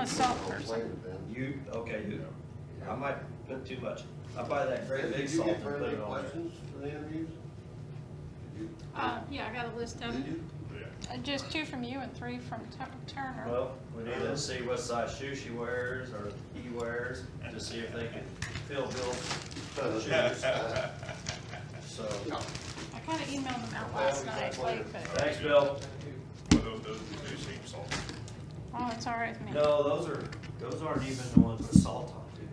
a salt person. You, okay, you, I might put too much. I buy that great big Did you salt and get put very many it on questions for the interviews? Uh, yeah, I got a list of Did you? them. Uh, Just two from you and three from Tu- there. Turner. Well, we need Uh-huh. to see what size shoe she wears or he wears to see if they can fill Bill's shoes. So, I kinda emailed them out last night, late, but, thanks, Bill. Well, those, those do seem salty. oh, it's all right with me. No, those are, those aren't even the ones with salt on, dude.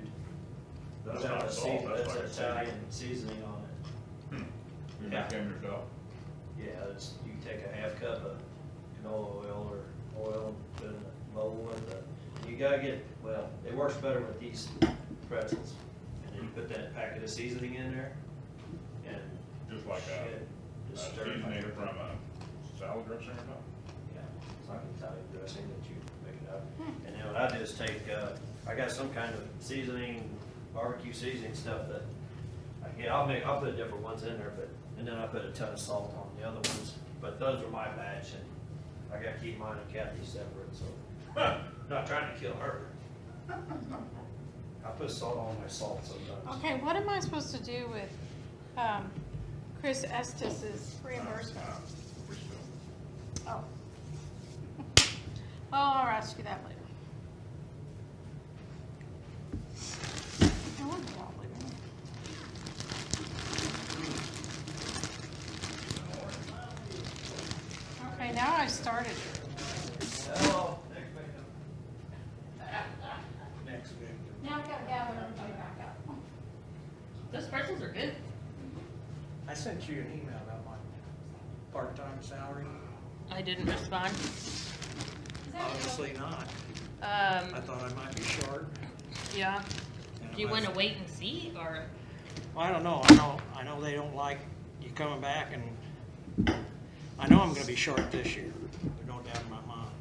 Those That's have not a salt, season, that's that's an like Hmm. a seasoning. Italian seasoning on it. You Yeah. make them yourself. Yeah, it's, you can take a half cup of canola oil or oil, and put in a bowl with the, you gotta get, well, it works better with these pretzels. And then you put that packet of seasoning in there and. Just like a- shit, Uh, Just stir it. Seasoning it from a salad dressing or something. Yeah, it's like Italian dressing that you make it up. And then what I do is take, uh, I got some kind of seasoning, barbecue seasoning stuff that, I get, I'll make, I'll put different ones in there, but, and then I put a ton of salt on the other ones. But those are my batch and I gotta keep mine and Kathy separate, so, not trying to kill her. I put salt on my salt sometimes. Okay, what am I supposed to do with, um, Chris Estes's reimbursement? Uh, we still- Oh. Well, I'll ask you that later. I wonder why we don't- Okay, now I started. Hello, next victim. Next victim. Now I gotta gather everybody back up. Those pretzels are good. I sent you an email about my part-time salary. I didn't respond. Obviously not. I Um, thought I might be short. yeah. and Do you I- wanna wait and see, or? I don't know. I know, I know they don't like you coming back and I know I'm gonna be short this year. There's no doubt in my mind.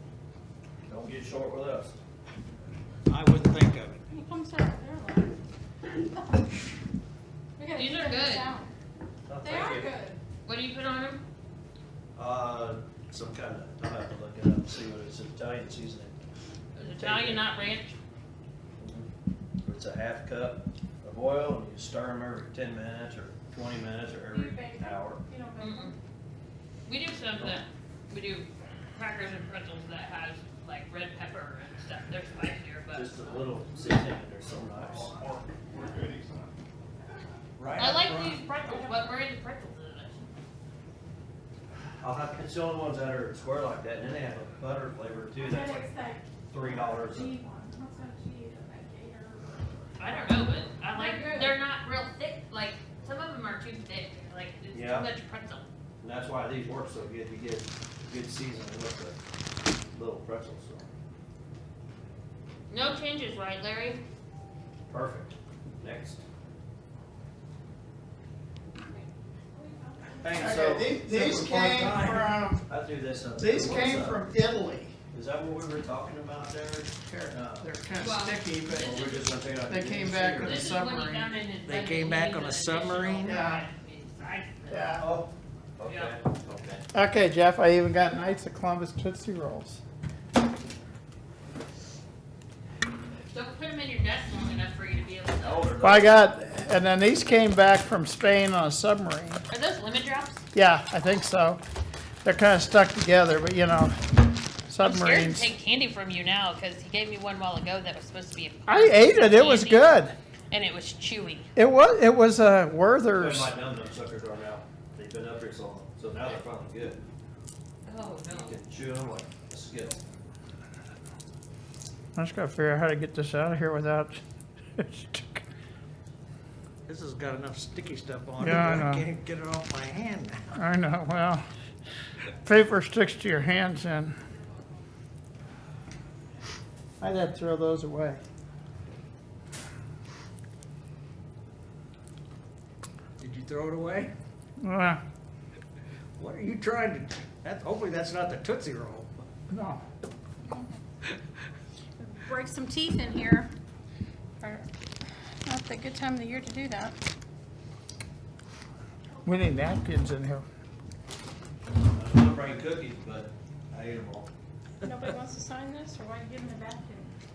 Don't get short with us. I wouldn't think of it. He comes out there like. We gotta These keep are this good. out. No, They thank are you. good. What do you put on them? Uh, some kind of, I'll have to look it up and see what it's Italian seasoning. Italian, not ranch? It's a half cup of oil and you stir them every ten minutes or twenty minutes or You every bake them? hour. You don't bake Mm-mm. them? Mm-hmm. We do some that, we do crackers and pretzels that has like red pepper and stuff. They're spicier, but Just a little seasoning and they're so nice. We're good, he's not. Right I up like front. these pretzels, but where are the pretzels in it? I'll have, it's the only ones that are square like that and then they have a butter flavor too. That's like three dollars. G one, what's that G, like eight or? I don't know, but I like, They're good. they're not real thick, like, some of them are too thick, like, it's too Yeah. much pretzel. And that's why these work so good. You get good seasoning with the little pretzels. so. No changes, right, Larry? Perfect. Next. Hey, so. Okay, the- this these was came part-time. from, I threw this up. these What's came up? from Italy. Is that what we were talking about there? They're Uh, kind Well, of sticky, but Or we're just gonna take out They the came green back sticker? On with a This is when he submarine. found it in his They budget, came he back needs on a an additional submarine? Yeah. size. yeah. Oh, okay, Yeah. okay. Okay, Jeff, I even got Knights of Columbus Tootsie Rolls. Don't put them in your desk long enough for you to be able to. Now, Well, I got, and then these came back from Spain on a submarine. Are those lemon drops? Yeah, I think so. They're kind of stuck together, but you know, I'm scared to submarines. take candy from you now because he gave me one while ago that was supposed to be. a- I ate it. It was candy, good. And it was chewy. It was, it was a They're Werther's. my num num suckers are now. They've been up here so long, so now they're finally good. Oh, You can chew them like a Skittle. I just gotta figure out how to get this out of here without. This has got enough sticky stuff on it. Yeah, I that know. can't get it off my hand now. I know, well, paper sticks to your hands and. I'd have to throw those away. Did you throw it away? Uh, What are you trying to, that, hopefully that's not the Tootsie Roll. No. break some teeth in here. Or- Not the good time of the year to do that. We need napkins in here. I'm not bringing cookies, but I ate them all. Nobody wants to sign this, or why are you giving it back to me?